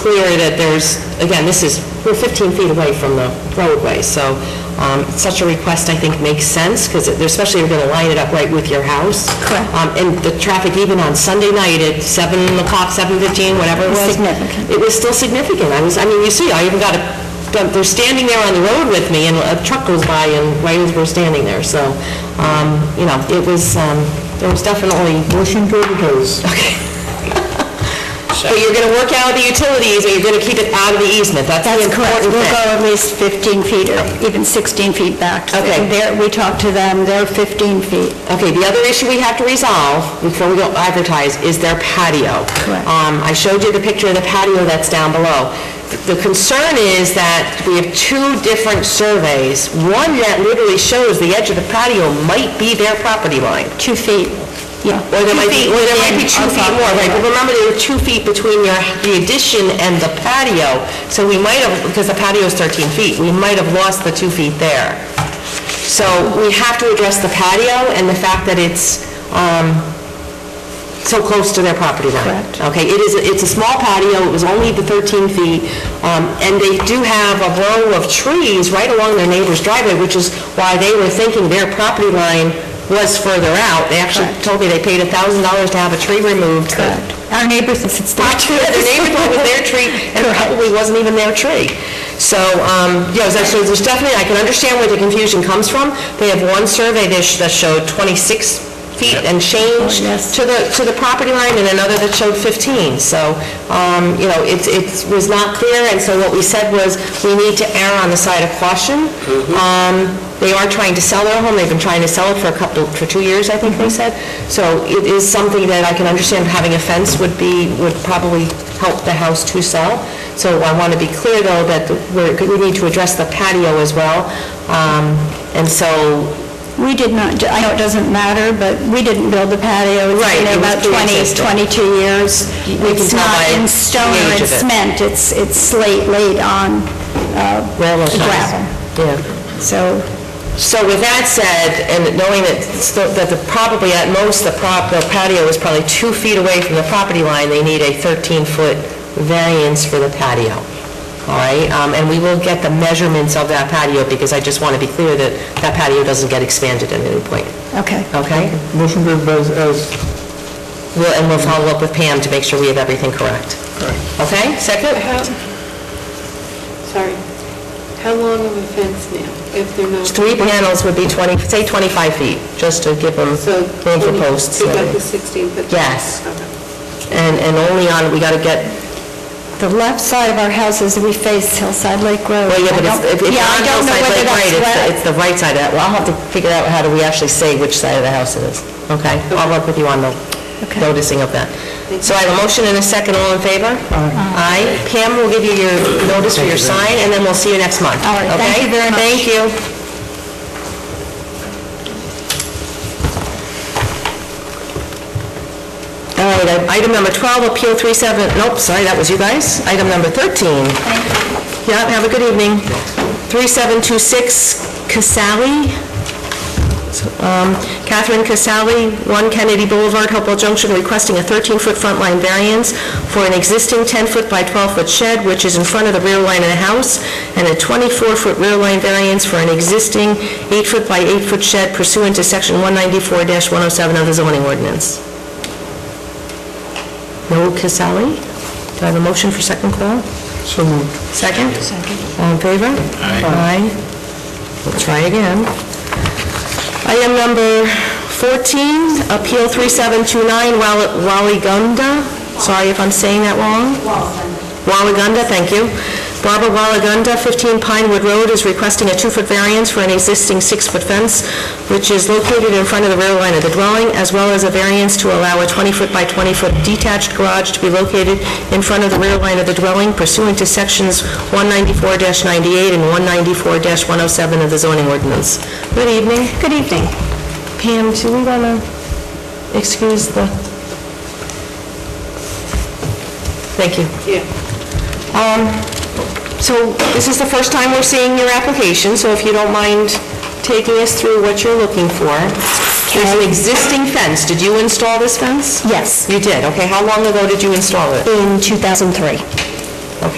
clear that there's, again, this is, we're 15 feet away from the roadway, so um, such a request, I think, makes sense, because especially you're going to line it up right with your house. Correct. Um, And the traffic even on Sunday night at 7 o'clock, 7:15, whatever it was. Significant. It was still significant. I was, I mean, you see, I even got a, they're standing there on the road with me, and a truck goes by, and right as we're standing there, so, um, you know, it was, um, there was definitely... Motion to but you're gonna work out the utilities, and you're gonna keep it out of the easement, that's the That's important correct. We'll thing. go at least 15 feet or even 16 feet back. Okay. And there- We talked to them, they're 15 feet. Okay, the other issue we have to resolve before we go advertise is their patio. Correct. Um, I showed you the picture of the patio that's down below. The concern is that we have two different surveys. One that literally shows the edge of the patio might be their property line. Two feet, yeah. Or there might be, or there might be two feet more, right? But remember, there were two feet between your, the addition and the patio, so we might have, because the patio is 13 feet, we might have lost the two feet there. So we have to address the patio and the fact that it's um, so close to their property line. Correct. Okay, it is, it's a small patio, it was only the 13 feet, um, and they do have a row of trees right along their neighbor's driveway, which is why they were thinking their property line was further out. They actually Correct. told me they paid $1,000 to have a tree removed. Correct. Our neighbors, it's it's Not not true. the neighbor thought it was their tree, and it probably wasn't even their tree. So, um, yeah, so so there's definitely, I can understand where the confusion comes from. They have one survey that sh- that showed 26 feet and change Oh, yes. to the, to the property line, and another that showed 15. So, um, you know, it's, it was not clear, and so what we said was, we need to err on the side of caution. Um, They are trying to sell their home, they've been trying to sell it for a couple, for two years, I think they said. So it is something that I can understand, having a fence would be, would probably help the house to sell. So I want to be clear, though, that we're, we need to address the patio as well. Um, And so, We did not, I know it doesn't matter, but we didn't build the patio. It's Right, been it was about 20, pre-existing. 22 years. we can It's tell not by in the stone or age in of it. cement, it's it's slate laid on uh, railroad ties. gravel. Yeah. So So with that said, and knowing that, still- that the, probably at most, the prop, the patio is probably two feet away from the property line, they need a 13-foot variance for the patio. All right, um, and we will get the measurements of that patio, because I just want to be clear that that patio doesn't get expanded at any point, Okay. okay? Motion to advertise as, We'll, and we'll follow up with Pam to make sure we have everything correct. Correct. Okay, second? How, sorry, how long of a fence now, if they're not? Three panels would be 20, say 25 feet, just to give them So room for posts. Take out the 16, but. Yes. Okay. And, and only on, we got to get The left side of our house is, we face Hillside Lake Road. Well, yeah, I but don't- if- if it's Yeah, on I don't know Hillside whether Lake that's right, it's wet. the- it's the right side of that. Well, I'll have to figure out how do we actually say which side of the house it is. Okay, I'll work with you on the Okay. noticing of that. So I have a motion and a second, all in favor? Aye. Pam will give you your notice for your sign, and then we'll see you next month. All right, thank you okay? very much. Thank you. All right, item number 12, Appeal 37, nope, sorry, that was you guys. Item number 13, yeah, have a good evening. 3726 Casali, um, Catherine Casali, 1 Kennedy Boulevard, Hopewell Junction, requesting a 13-foot front line variance for an existing 10-foot by 12-foot shed, which is in front of the rear line of the house, and a 24-foot rear line variance for an existing 8-foot by 8-foot shed pursuant to Section 194-107 of the zoning ordinance. No Casali? Do I have a motion for second call? so moved. Second? Second. All in favor? Aye. We'll try again. Item number 14, Appeal 3729, Wal- Waligunda. Sorry if I'm saying that wrong. Waligunda, thank you. Barbara Waligunda, 15 Pinewood Road, is requesting a two-foot variance for an existing six-foot fence, which is located in front of the rear line of the dwelling, as well as a variance to allow a 20-foot by 20-foot detached garage to be located in front of the rear line of the dwelling pursuant to Sections 194-98 and 194-107 of the zoning ordinance. Good evening. Good evening. Pam, do we want to excuse the... Thank you. Yeah, Um, So this is the first time we're seeing your application, so if you don't mind taking us through what you're looking for. There's an existing fence. Did you install this fence? Yes, You did, okay. How long ago did you install it? in 2003.